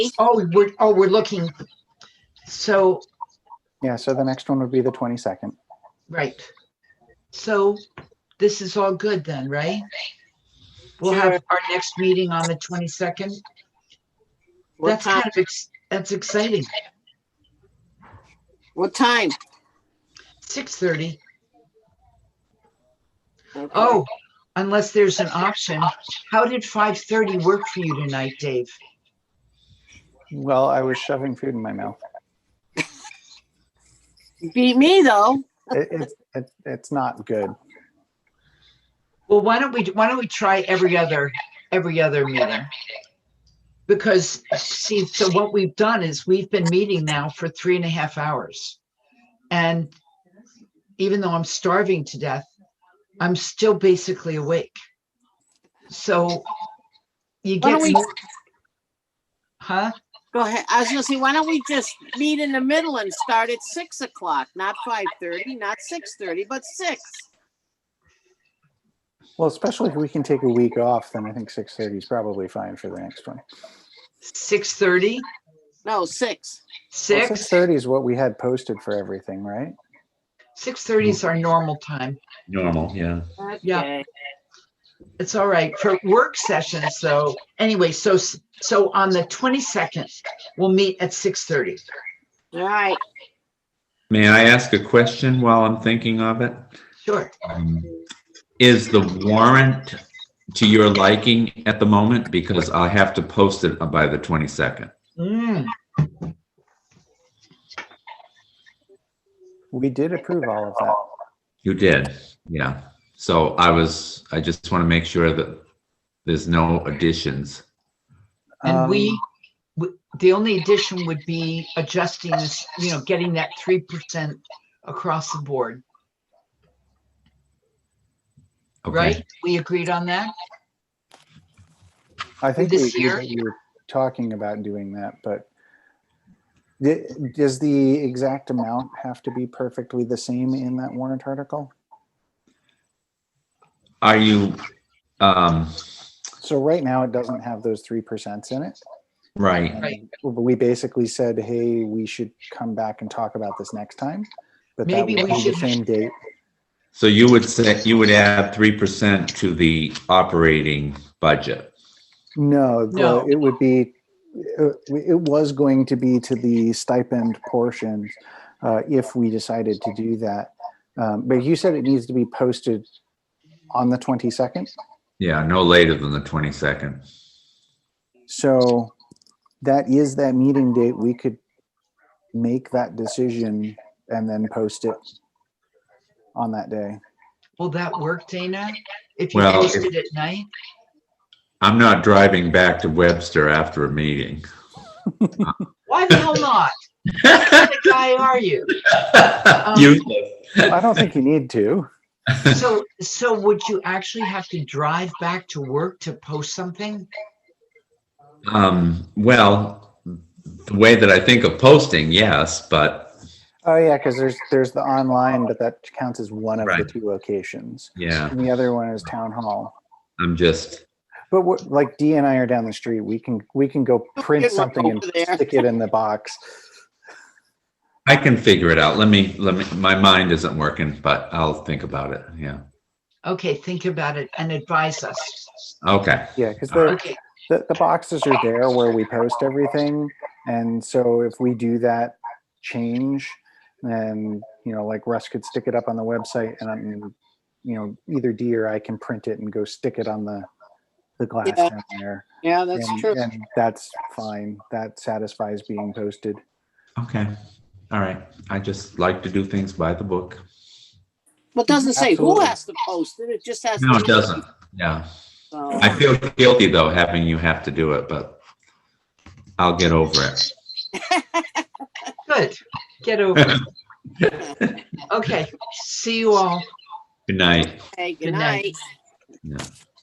Oh, we're, oh, we're looking. So, Yeah, so the next one would be the 22nd. right. So this is all good then, right? We'll have our next meeting on the twenty-second. What That's time? kind of, ex- that's exciting. What time? Six thirty. Okay. Oh, unless there's an option. How did five thirty work for you tonight, Dave? Well, I was shoving food in my mouth. Beat me though. It, it's- it, it's not good. Well, why don't we, why don't we try every other, every other meeting? Because, see, so what we've done is we've been meeting now for three and a half hours. And even though I'm starving to death, I'm still basically awake. So you get, Why don't we- more- huh? Go ahead. I was gonna say, why don't we just meet in the middle and start at six o'clock, not five thirty, not six thirty, but six. Well, especially if we can take a week off, then I think 6:30 is probably fine for the next one. Six thirty, No, six. Well, six? 6:30 is what we had posted for everything, right? Six thirty is our normal time. Normal, yeah. Yeah. Okay. It's all right for work sessions, though. Anyway, so, so on the twenty-second, we'll meet at six thirty. All right. May I ask a question while I'm thinking of it? Sure. Um, Is the warrant to your liking at the moment? Because I have to post it by the 22nd. Mm, We did approve all of that. You did, yeah. So I was, I just want to make sure that there's no additions. Um, and we, w- the only addition would be adjusting this, you know, getting that three percent across the board, Okay. right? We agreed on that? I think we this agreed year? that we were talking about doing that, but di- does the exact amount have to be perfectly the same in that warrant article? Are you, um, So right now, it doesn't have those 3% in it. right, Right. Well, but we basically said, hey, we should come back and talk about this next time. But that Maybe would we be the should- same date. so you would say, you would add 3% to the operating budget? No, the- No. it would be, it it was going to be to the stipend portion uh, if we decided to do that. Um, But you said it needs to be posted on the 22nd. Yeah, no later than the 22nd. So that is that meeting date. We could make that decision and then post it on that day. Will that work, Dana? If you Well, posted at night? I'm not driving back to Webster after a meeting. Why the hell not? What kind of guy are you? Useless. I don't think you need to. So, so would you actually have to drive back to work to post something? Um, well, the way that I think of posting, yes, but Oh yeah, because there's there's the online, but that counts as one of Right. the two locations. yeah, And the other one is town hall. I'm just, But what, like D and I are down the street, we can we can go print Good luck something and over there. stick it in the box. I can figure it out. Let me, let me, my mind isn't working, but I'll think about it. Yeah. Okay, think about it and advise us. Okay. Yeah, because Uh-huh. the, Okay, the the boxes are there where we post everything, and so if we do that change, then you know, like Russ could stick it up on the website, and I'm, you know, either D or I can print it and go stick it on the the glass Yeah. down there. Yeah, that's and, true. and that's fine. That satisfies being posted. Okay. All right. I just like to do things by the book. Well, it doesn't say who Absolutely. has to post it. It just has. No, to it be- doesn't. Yeah. So- I feel guilty though, having you have to do it, but I'll get over it. good. Get over it. Okay, see you all. Good night. Okay, Good good night. night.